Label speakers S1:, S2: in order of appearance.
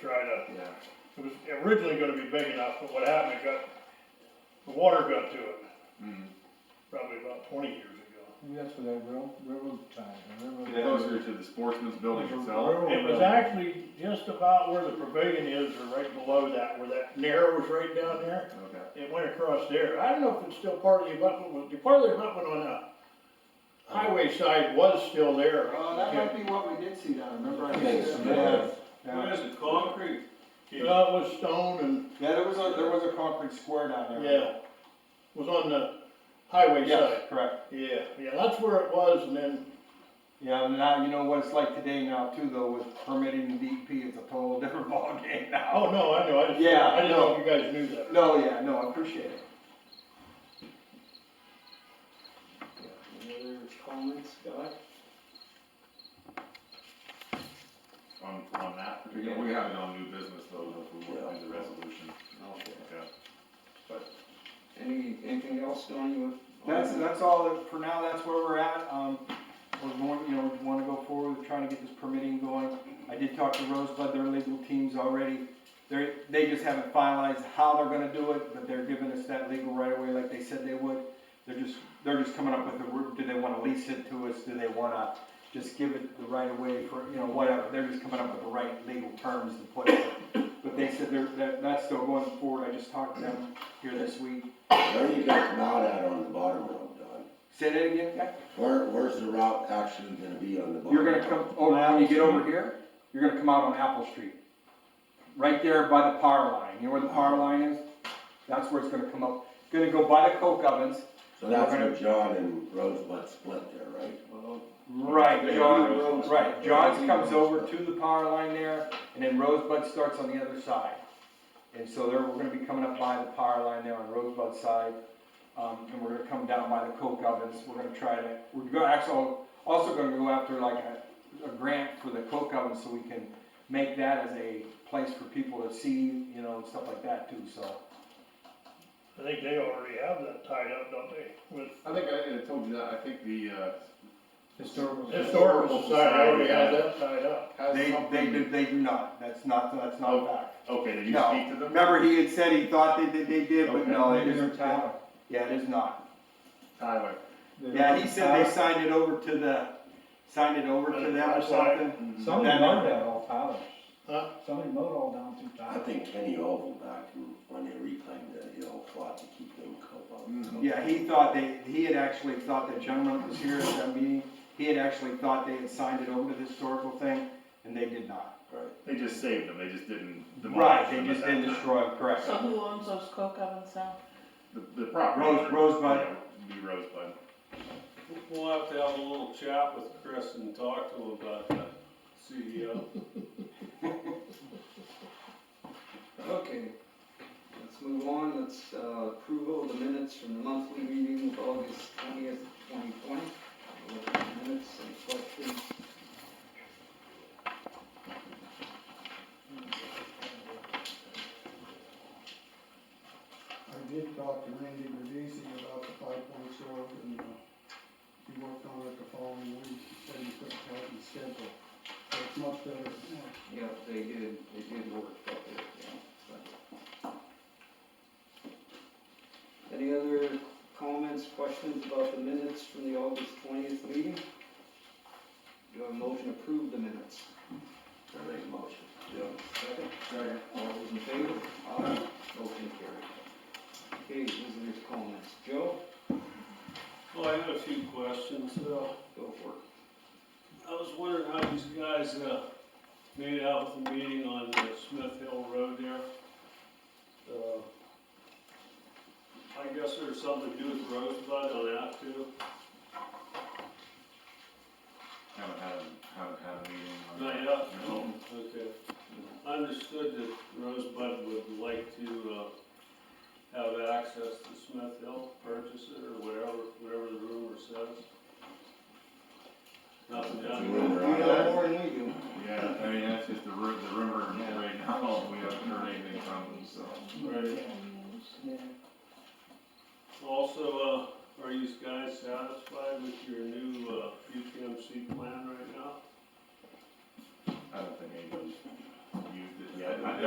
S1: try to,
S2: yeah,
S1: it was originally gonna be big enough, but what happened, it got, the water got to it,
S2: mm,
S1: probably about twenty years ago.
S3: Maybe that's for that rail, railroad tie, the railroad.
S2: closer to the sportsman's building
S3: There's a
S2: itself.
S3: railroad
S1: It was
S3: tie.
S1: actually just about where the pavilion is, or right below that, where that narrows right down there.
S2: Okay,
S1: It went across there. I don't know if it's still part of the abutment, was, the part of the abutment on the highway side was still there.
S4: Oh, that might be what we did see down, remember I
S3: Yes,
S4: said
S3: yeah.
S4: that?
S3: Yeah.
S5: is it, concrete?
S1: Uh, it was stone
S4: Yeah, there was a, there was a concrete square down
S1: and,
S4: there.
S1: yeah, was on the highway
S4: Yes,
S1: side.
S4: correct,
S1: Yeah, yeah, that's where it was, and then,
S4: yeah, and now, you know what it's like today now too, though, with permitting and DEP, it's a total different ballgame now.
S1: oh, no, I know, I just,
S4: Yeah,
S1: I didn't know if you guys knew that.
S4: No, yeah, no, I appreciate it.
S5: Any other comments, Scott?
S2: on, on that, we we have it on new business though, if we want to do the resolution,
S5: Okay.
S2: okay.
S5: Any, anything else, Don, you want?
S4: That's, that's all, that- for now, that's where we're at, um, we're going, you know, we wanna go forward with trying to get this permitting going. I did talk to Rosebud, their legal team's already, they're, they just haven't finalized how they're gonna do it, but they're giving us that legal right away like they said they would. They're just, they're just coming up with the, route. do they wanna lease it to us, do they wanna just give it the right of way for, you know, whatever, they're just coming up with the right legal terms to put it. But they said they're, that, that's still going forward, I just talked to them here this week.
S6: Where you got out at on the bottom road, Don?
S4: Say that again, guys?
S6: Where, where's the route actually gonna be on the bottom?
S4: You're gonna come, oh, when you get over here, you're gonna come out on Apple Street. Right there by the power line, you know where the power line is? That's where it's gonna come up. Gonna go by the coke ovens.
S6: So that's where John and Rosebud split there, right?
S5: Well,
S4: Right,
S2: Yeah,
S4: John,
S2: Rosebud.
S4: right, John's comes over to the power line there, and then Rosebud starts on the other side. And so there, we're gonna be coming up by the power line there on Rosebud's side, um, and we're gonna come down by the coke ovens, we're gonna try to, we're gonna, actually, also gonna go after like a, a grant for the coke oven, so we can make that as a place for people to see, you know, and stuff like that too, so.
S1: I think they already have that tied up, don't they? With
S2: I think I, I told you that, I think the, uh,
S3: Historical.
S1: Historical Society already has
S2: Yeah.
S1: that tied up.
S2: has
S4: They, they
S2: something,
S4: do, they do not, that's not, that's not a fact.
S2: okay, did you
S4: No.
S2: speak to them?
S4: Remember, he had said he thought that, that they did, but no, it
S3: Maybe they're
S4: isn't.
S3: tied.
S4: Yeah, it is not.
S2: Tyler,
S3: They're
S4: Yeah, he said they
S3: tied.
S4: signed it over to the, signed it over to them or something.
S2: Mm-hmm.
S3: Somebody
S4: that-
S3: mowed that all Tyler's.
S1: Huh?
S3: Somebody mowed all down through
S6: I
S3: Tyler.
S6: think Kenny Oval back in- when they reclaimed that hill fought to keep them
S2: Mhm.
S5: Mm.
S6: covered.
S4: Yeah, he thought they, he had actually thought that gentleman that was here at that meeting, he had actually thought they had signed it over to the historical thing, and they did not.
S6: Right.
S2: they just saved them, they just didn't demolish
S4: Right, they
S2: them
S4: just
S2: at that
S4: didn't
S2: time.
S4: destroy it, correct.
S7: So who owns those coke ovens now?
S2: The, the property.
S4: Rose- Rosebud.
S2: Yeah, would Be Rosebud.
S5: We'll have to have a little chat with Chris and talk to him about that CEO. Okay, let's move on, let's, uh, approval of the minutes from the monthly meeting of August twentieth, twenty twenty. Minutes and questions.
S8: I did talk to Randy Medici about the five point short and, uh, he worked on it the following week, said he couldn't help his schedule. So it's much better now.
S5: Yeah, they did, they did work up there, yeah. Any other comments, questions about the minutes from the August twentieth meeting? Do I have a motion to approve the minutes?
S6: I make a motion.
S5: Second? Second. All those in favor? Aye. Motion carried. Okay, visitors' comments. Joe?
S9: Well, I had a few questions. Uh,
S5: Go for it.
S9: I was wondering how these guys, uh, made out with the meeting on uh, Smith Hill Road there. Uh, I guess there's something to do with Rosebud on that too.
S2: Haven't had, haven't had a meeting on
S9: Not
S2: that.
S9: yet?
S2: No.
S9: Okay. I understood that Rosebud would like to, uh, have access to Smith Hill, purchase it or whatever, whatever the rumor says. Nothing
S6: It's a
S9: down
S6: rumor.
S5: You know more than we do.
S2: Yeah, I mean, that's just the ru, the rumor
S5: Yeah.
S2: right now, we haven't heard anything from them, so.
S9: Right. Also, uh, are you guys satisfied with your new, uh, UTMC plan right now?
S2: I don't think anybody's used it yet. Yeah, I-